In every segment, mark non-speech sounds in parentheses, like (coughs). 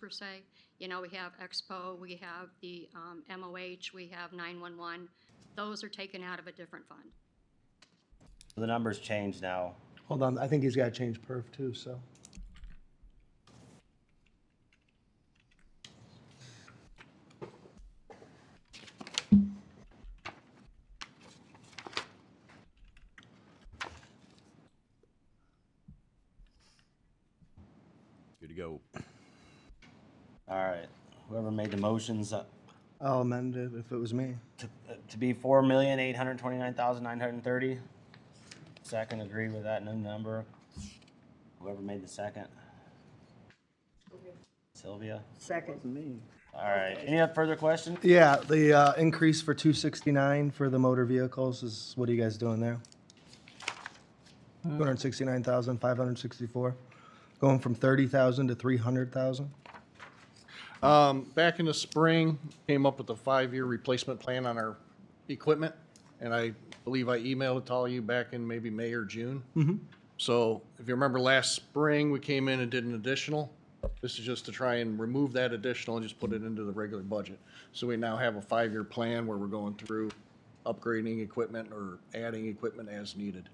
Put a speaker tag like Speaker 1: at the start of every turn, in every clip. Speaker 1: per se. You know, we have Expo, we have the um, MOH, we have 911. Those are taken out of a different fund.
Speaker 2: The numbers change now.
Speaker 3: Hold on, I think he's got to change perf too, so.
Speaker 4: Good to go.
Speaker 2: All right, whoever made the motions uh,
Speaker 3: I'll amend it if it was me.
Speaker 2: to, uh, to be four million eight hundred twenty-nine thousand nine hundred thirty. Second, agree with that new number. Whoever made the second. Sylvia.
Speaker 5: Second.
Speaker 2: All right. Any other further questions?
Speaker 3: Yeah, the uh, increase for 269 for the motor vehicles is, what are you guys doing there? Uh. 269,564, going from 30,000 to 300,000?
Speaker 6: Um, back in the spring, came up with a five-year replacement plan on our equipment, and I believe I emailed it to all you back in maybe May or June. So if you remember last spring, we came in and did an additional. This is just to try and remove that additional and just put it into the regular budget. So we now have a five-year plan where we're going through upgrading equipment or adding equipment as needed.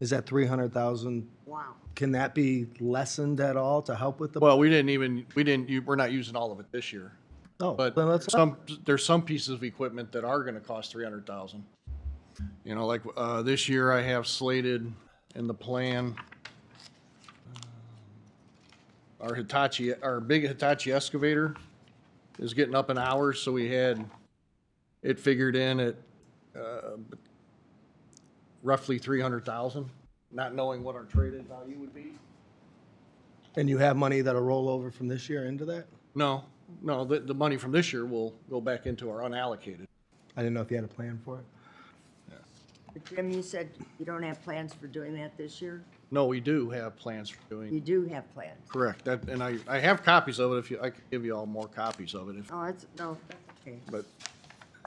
Speaker 3: Is that 300,000,
Speaker 5: Wow.
Speaker 3: can that be lessened at all to help with the?
Speaker 6: Well, we didn't even, we didn't, u- we're not using all of it this year.
Speaker 3: Oh,
Speaker 6: But
Speaker 3: then let's-
Speaker 6: some, there's some pieces of equipment that are gonna cost three hundred thousand. You know, like, uh, this year I have slated in the plan. uh, Our Hitachi, our big Hitachi excavator is getting up in hours, so we had it figured in at, uh, roughly three hundred thousand, not knowing what our traded value would be.
Speaker 3: And you have money that'll roll over from this year into that?
Speaker 6: No, no, the, the money from this year will go back into our unallocated.
Speaker 3: I didn't know if you had a plan for it.
Speaker 5: But Jim, you said you don't have plans for doing that this year?
Speaker 6: No, we do have plans for doing.
Speaker 5: You do have plans.
Speaker 6: Correct, that, and I, I have copies of it, if you, I could give you all more copies of it, if,
Speaker 5: Oh, that's, no, okay.
Speaker 6: but,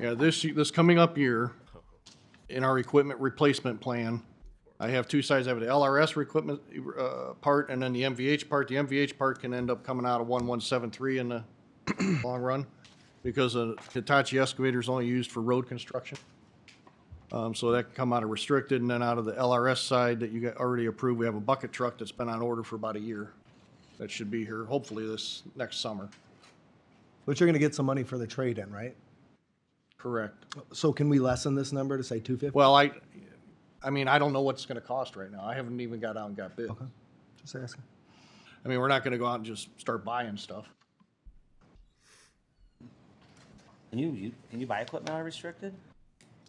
Speaker 6: yeah, this, ye- this coming up year, in our equipment replacement plan, I have two sides, I have the LRS equipment, uh, part, and then the MVH part, the MVH part can end up coming out of one one seven three in the (clears throat) long run, because a Hitachi excavator is only used for road construction. Um, so that can come out of restricted, and then out of the LRS side that you got already approved, we have a bucket truck that's been on order for about a year. That should be here, hopefully this next summer.
Speaker 3: But you're going to get some money for the trade-in, right?
Speaker 6: Correct.
Speaker 3: So can we lessen this number to say 250?
Speaker 6: Well, I, I mean, I don't know what it's gonna cost right now. I haven't even got out and got bid.
Speaker 3: Just asking.
Speaker 6: I mean, we're not gonna go out and just start buying stuff.
Speaker 2: Can you, you can you buy equipment unrestricted?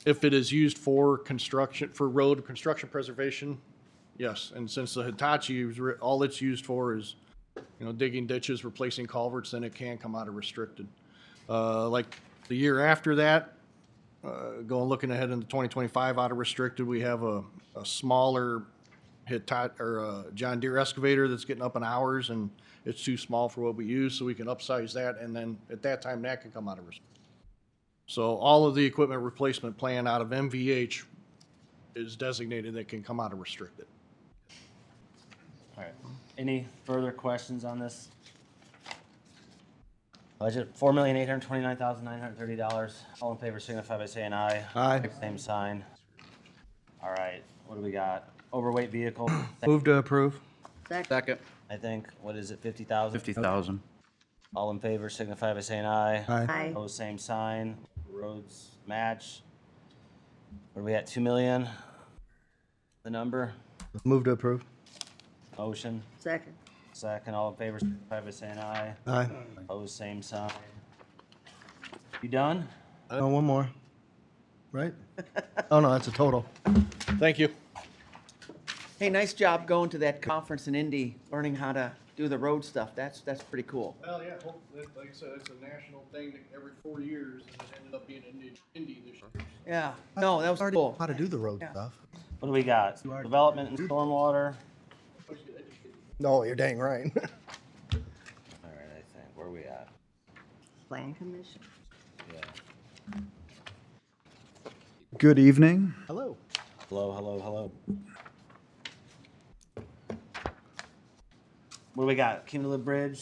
Speaker 6: If it is used for construction, for road construction preservation, yes. And since the Hitachi, is re- all it's used for is, you know, digging ditches, replacing culverts, then it can come out of restricted. Uh, like the year after that, uh, going, looking ahead into twenty twenty-five out of restricted, we have a, a smaller Hitat, or a John Deere excavator that's getting up in hours and it's too small for what we use, so we can upsize that and then at that time, that can come out of restricted. So all of the equipment replacement plan out of MVH is designated that can come out of restricted.
Speaker 2: All right. Any further questions on this? Budget four million eight hundred twenty-nine thousand nine hundred thirty dollars. All in favor signify by saying aye.
Speaker 3: Aye.
Speaker 2: Same sign. All right, what do we got? Overweight vehicle, (coughs)
Speaker 3: Move to approve.
Speaker 5: Second,
Speaker 7: Second.
Speaker 2: I think, what is it, fifty thousand?
Speaker 7: Fifty thousand.
Speaker 2: All in favor signify by saying aye.
Speaker 3: Aye.
Speaker 5: Aye.
Speaker 2: Opposed, same sign. Roads match. What are we at, two million? The number?
Speaker 3: Move to approve.
Speaker 2: Motion,
Speaker 5: second,
Speaker 2: second, all in favor signify by saying aye.
Speaker 3: Aye.
Speaker 2: Opposed, same sign. You done?
Speaker 3: Oh, one more. Right? Oh, no, that's a total.
Speaker 6: Thank you.
Speaker 7: Hey, nice job going to that conference in Indy, learning how to do the road stuff. That's, that's pretty cool.
Speaker 6: Well, yeah, hope- that- like I said, it's a national thing that every four years, and it ended up being in Indi- Indy this year.
Speaker 7: Yeah, no, that was cool.
Speaker 3: How to do the road stuff.
Speaker 2: What do we got? Development and stormwater?
Speaker 3: No, you're dang right. (laughs)
Speaker 2: All right, I think, where are we at?
Speaker 5: plan commission.
Speaker 8: Good evening.
Speaker 3: Hello.
Speaker 2: Hello, hello, hello. What do we got? Cumulative Bridge?